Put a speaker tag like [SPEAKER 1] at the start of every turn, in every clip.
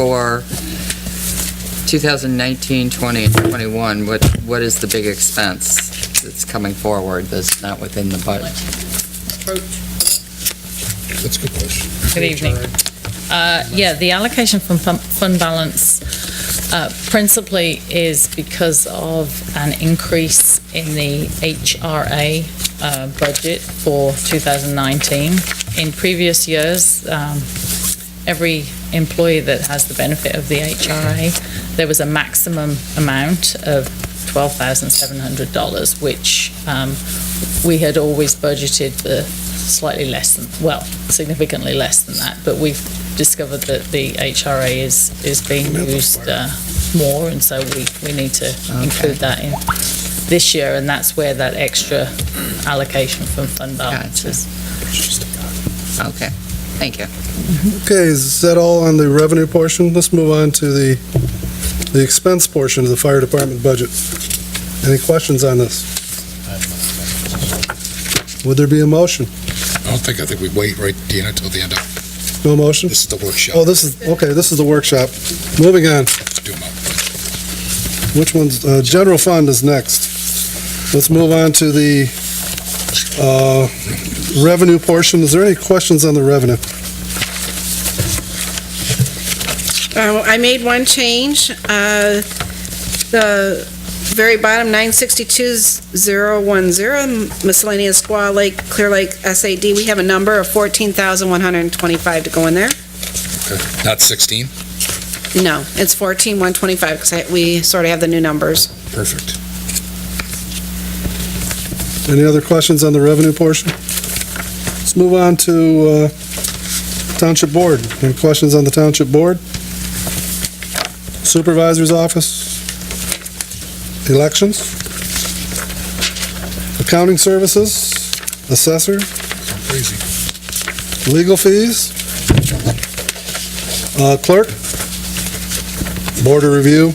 [SPEAKER 1] for 2019, 20, and 21, what, what is the big expense that's coming forward that's not within the budget?
[SPEAKER 2] That's a good question.
[SPEAKER 3] Good evening. Uh, Yeah, the allocation from fun- fund balance uh, principally is because of an increase in the HRA uh, budget for 2019. In previous years, um, every employee that has the benefit of the HRA, there was a maximum amount of $12,700, which um, we had always budgeted the slightly less than, well, significantly less than that, but we've discovered that the HRA is, is being used uh, more, and so we, we need to include that in this year, and that's where that extra allocation from fund balance
[SPEAKER 1] Gotcha.
[SPEAKER 3] is.
[SPEAKER 1] Okay, thank you.
[SPEAKER 2] Okay, is that all on the revenue portion? Let's move on to the, the expense portion of the fire department budget. Any questions on this? Would there be a motion?
[SPEAKER 4] I don't think, I think we wait, right, Deanna, till the end of,
[SPEAKER 2] No motion?
[SPEAKER 4] this is the
[SPEAKER 2] Oh,
[SPEAKER 4] workshop.
[SPEAKER 2] this is, okay, this is the workshop. Moving on,
[SPEAKER 4] to do my-
[SPEAKER 2] which one's, uh, general fund is next. Let's move on to the, uh, revenue portion. Is there any questions on the revenue?
[SPEAKER 5] Uh, I made one change. Uh, The very bottom, 962-010, miscellaneous Squaw Lake, Clear Lake SAD, we have a number of 14,125 to go in there.
[SPEAKER 4] Okay. Not 16?
[SPEAKER 5] No, it's 14,125, because we sort of have the new numbers. Oh,
[SPEAKER 4] Perfect.
[SPEAKER 2] Any other questions on the revenue portion? Let's move on to uh, Township Board. Any questions on the Township Board? Supervisor's Office? Elections? Accounting Services? Assessor?
[SPEAKER 4] Crazy.
[SPEAKER 2] Legal fees? Uh, Clerk? Border Review?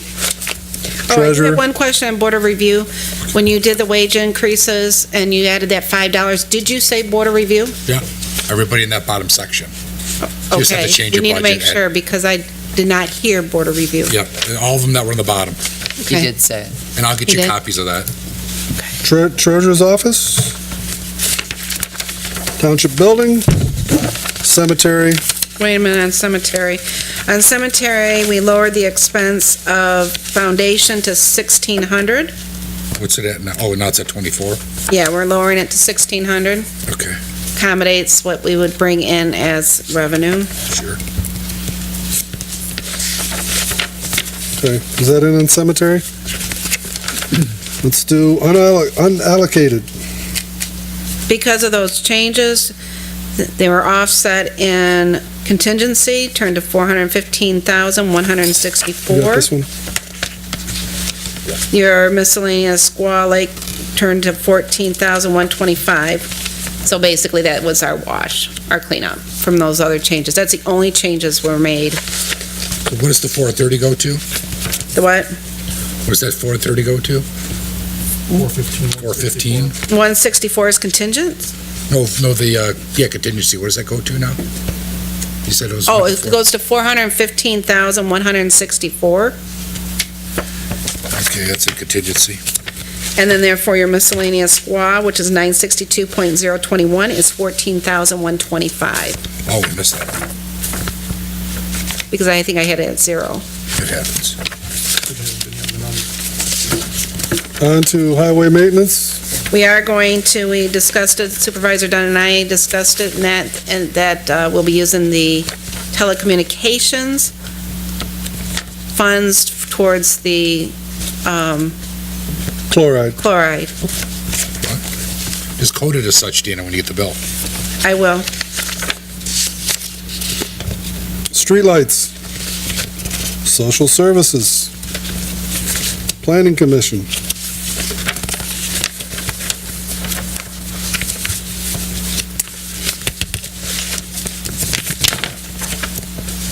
[SPEAKER 5] Oh, I do
[SPEAKER 2] Treasurer?
[SPEAKER 5] have one question on Board of Review. When you did the wage increases and you added that $5, did you say Board of Review?
[SPEAKER 4] Everybody in that bottom section. You just have to
[SPEAKER 5] Okay,
[SPEAKER 4] change
[SPEAKER 5] we
[SPEAKER 4] your
[SPEAKER 5] need to
[SPEAKER 4] budget
[SPEAKER 5] make
[SPEAKER 4] at-
[SPEAKER 5] sure, because I did not hear Board of Review.
[SPEAKER 4] Yep, and all of them that were in the bottom,
[SPEAKER 1] You
[SPEAKER 5] Okay.
[SPEAKER 1] did say it.
[SPEAKER 4] and I'll get
[SPEAKER 5] You
[SPEAKER 4] you
[SPEAKER 5] did?
[SPEAKER 4] copies of that.
[SPEAKER 2] Tre- Treasurer's Office, Township Building, Cemetery,
[SPEAKER 5] Wait a minute, on cemetery. On cemetery, we lowered the expense of foundation to sixteen hundred.
[SPEAKER 4] What's it at now? Oh, now it's at 24?
[SPEAKER 5] Yeah, we're lowering it to sixteen hundred.
[SPEAKER 4] Okay,
[SPEAKER 5] Accommodates what we would bring in as revenue.
[SPEAKER 4] sure.
[SPEAKER 2] Okay, is that in on cemetery? Let's do unallo- unallocated.
[SPEAKER 5] Because of those changes, th- they were offset in contingency, turned to four hundred and fifteen thousand, one hundred and
[SPEAKER 2] You got
[SPEAKER 5] sixty-four.
[SPEAKER 2] this one?
[SPEAKER 5] Your miscellaneous squaw lake turned to fourteen thousand one twenty-five. So basically, that was our wash, our cleanup from those other changes. That's the only changes were made.
[SPEAKER 4] So What does the 430 go to?
[SPEAKER 5] The what?
[SPEAKER 4] What does that 430 go to? 415. 415?
[SPEAKER 5] One sixty-four is contingent?
[SPEAKER 4] No, no, the, uh, yeah, contingency, what does that go to now? You said it was.
[SPEAKER 5] Oh, it
[SPEAKER 4] 24.
[SPEAKER 5] goes to four hundred and fifteen thousand one hundred and sixty-four.
[SPEAKER 4] Okay, that's a contingency.
[SPEAKER 5] And then therefore, your miscellaneous squaw, which is nine sixty-two point zero twenty-one, is fourteen thousand one twenty-five.
[SPEAKER 4] Oh, we missed that.
[SPEAKER 5] Because I think I had it at zero.
[SPEAKER 4] It happens.
[SPEAKER 2] On to highway maintenance.
[SPEAKER 5] We are going to, we discussed it, Supervisor Dunn and I discussed it, and that, and that uh, we'll be using the telecommunications funds towards the um,
[SPEAKER 2] Chloride,
[SPEAKER 5] chloride.
[SPEAKER 4] It's coded as such, Deanna, when you get the bill.
[SPEAKER 5] I will.
[SPEAKER 2] streetlights, social services, planning commission.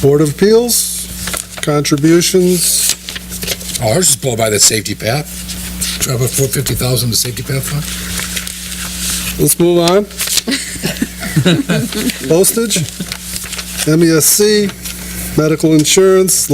[SPEAKER 2] Board of Appeals, contributions,
[SPEAKER 4] Oh, I was just blown by that safety path. Try about four fifty thousand to safety path fund?
[SPEAKER 2] Let's move on. Postage, MESC, E medical insurance,